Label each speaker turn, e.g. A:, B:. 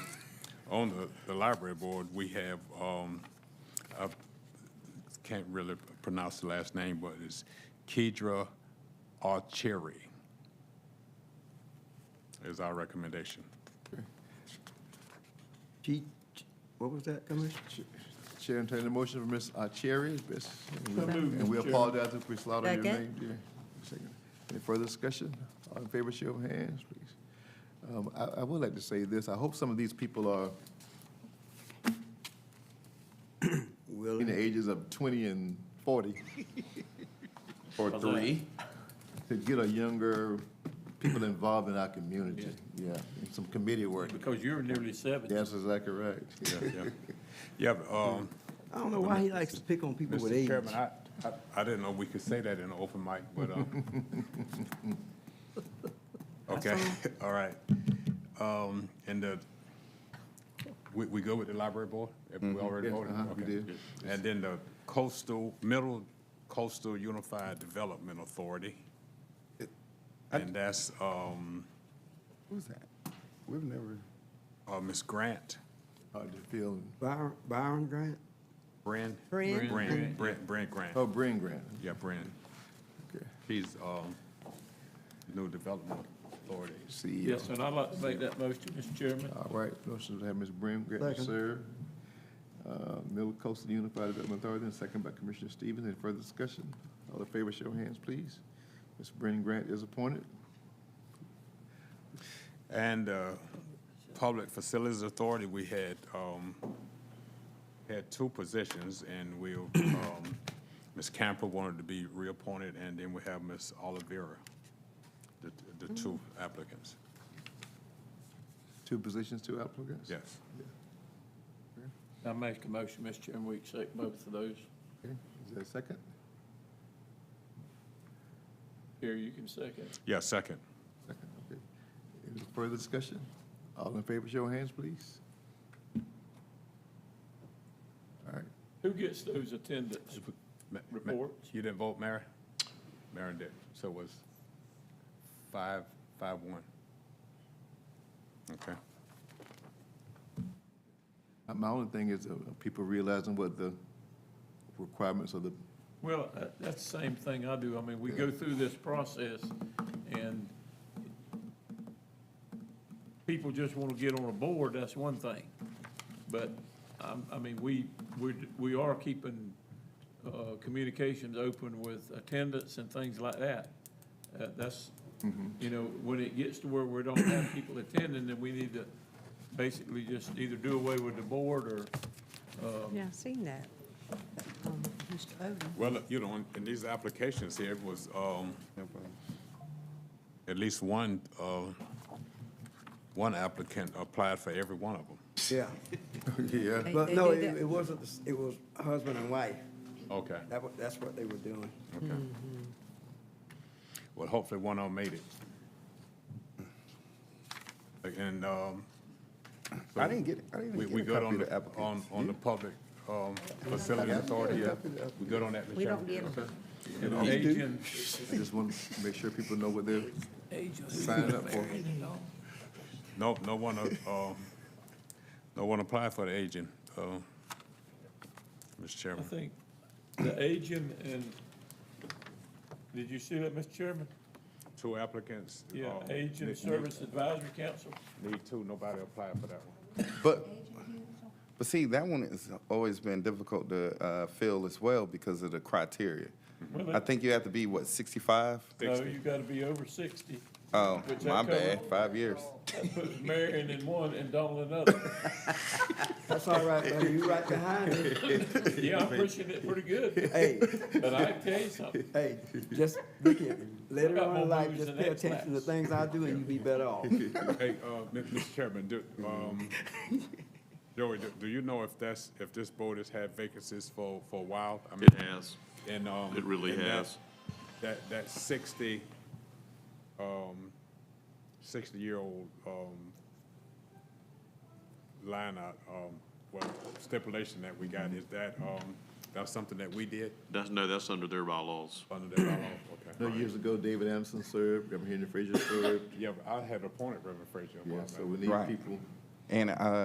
A: on the, the library board, we have, um, I can't really pronounce the last name, but it's Kedra Archeri is our recommendation.
B: She, what was that, Commissioner?
C: Chair, entertain the motion for Ms. Cherry. And
D: moved,
C: we
D: Mr. Chair.
C: apologize if we slaughtered your name,
E: Second.
C: dear. Second. Any further discussion? All in favor, show of hands, please. Um, I, I would like to say this, I hope some of these people are in the ages of twenty and forty. Or three. To get a younger, people involved in our community, yeah, and some committee work.
D: Because you're nearly seventy.
C: That's exactly correct.
A: Yeah, yeah. Yeah, but, um,
B: I don't know why he likes to pick on people with
A: Mr.
B: age.
A: Chairman, I, I, I didn't know we could say that in an open mic, but, um, okay, all right. Um, and the, we, we go with the library board? Have We already
C: Yes,
A: voted?
C: uh-huh, we
A: Okay.
C: did.
A: And then the coastal, Middle Coastal Unified Development Authority. And that's, um,
F: Who's that? We've never,
A: uh, Ms. Grant,
C: Hard to feel.
B: Byron, Byron Grant?
A: Bren?
E: Bren.
A: Bren, Bren, Bren Grant.
C: Oh, Bryn Grant.
A: Yeah, Brandon.
C: Okay.
A: He's, um, new development authority.
C: CEO.
D: Yes, and I'd like to make that motion, Mr. Chairman.
C: E All right, motion to have Ms. Brim Gretton
B: Second.
C: serve. Uh, Middle Coast Unified Development Authority, and second by Commissioner Stevens. Any further discussion? All in favor, show of hands, please. Ms. Brim Grant is appointed.
A: And, uh, Public Facilities Authority, we had, um, had two positions, and we'll, um, Ms. Camper wanted to be reappointed, and then we have Ms. Olivera, the, the two applicants,
C: Two positions, two applicants?
A: yes.
D: I make a motion, Mr. Chairman, we accept both of those.
C: Okay, Is there a second?
D: Here, you can second.
A: Yeah, second.
C: Second, okay. Any further discussion? All in favor, show of hands, please. All right,
D: Who gets those attendance?
A: Ma- ma-
D: Reports.
A: You didn't vote, Mary? Mary did, so it was five, five, one. Okay.
C: Uh, my only thing is uh, people realizing what the requirements of the
D: Well, that- that's the same thing I do. I mean, we go through this process and people just want to get on a board, that's one thing. But, um, I mean, we, we, we are keeping, uh, communications open with attendance and things like that. Uh, that's,
C: Mm-hmm.
D: you know, when it gets to where we don't have people attending, then we need to basically just either do away with the board or,
E: Yeah, I've seen that. Um, Mr. Odom.
A: Well, you know, in- in these applications here, it was um, at least one, uh, one applicant applied for every one of them.
B: Yeah,
C: Yeah,
E: They-
B: but
E: they
B: no,
E: do
B: it,
E: that.
B: it wasn't, the s- it was husband and wife.
A: Okay,
B: That, wa- that's what they were doing.
A: okay. Well, hopefully one of them made it. And um,
F: I didn't get, I didn't
A: we
F: even
A: we
F: get a
A: good
F: copy
A: on
F: of the
A: the, on,
F: applicants.
A: on the public um, facility authority. yeah? We good on that, Mr.
E: We don't
A: Chairman?
E: get them.
D: and agent,
C: I just want to make sure people know what they're signing up for.
A: No, no one, uh, no one applied for the agent, uh, Mr.
D: I
A: Chairman.
D: think the agent and, did you see that, Mr. Chairman?
A: Two applicants.
D: Yeah,
A: uh,
D: Agent
A: need-
D: Service Advisory Council.
A: Need two, nobody applied for that one.
F: But, but see, that one has always been difficult to uh, fill as well because of the criteria.
D: Well,
F: I
D: that-
F: think you have to be, what, 65?
D: No,
A: 60.
D: you gotta be over sixty.
F: Oh,
D: Which
F: my
D: that cover-
F: bad, five years.
D: That puts Marion in one and Donald in another.
B: That's all right, buddy, you right behind me.
D: Yeah, I'm pushing it pretty good,
B: Hey,
D: but I tell you something,
B: hey, just look at me. Later
D: got
B: on in
D: more
B: life,
D: moves
B: just
D: than
B: pay
D: X
B: attention to
D: laps.
B: things I do and you be better off.
A: Hey, uh, Mi- Mr. Chairman, do, um, Joey, do, do you know if that's, if this board has had vacancies for, for a while? I mean,
G: It has.
A: And, um.
G: It really
A: and that-
G: has.
A: That, that sixty, um, sixty-year-old, um, line out, um, well, stipulation that we got, is that, um, that's something that we did
G: That's, no, that's under their bylaws.
A: under that law? Okay.
C: No, years ago, David Anderson served, Reverend Henry Frazier served.
A: Yeah, but I had appointed Reverend Frazier.
C: Yeah, so we need
F: Right.
C: people.
F: And uh,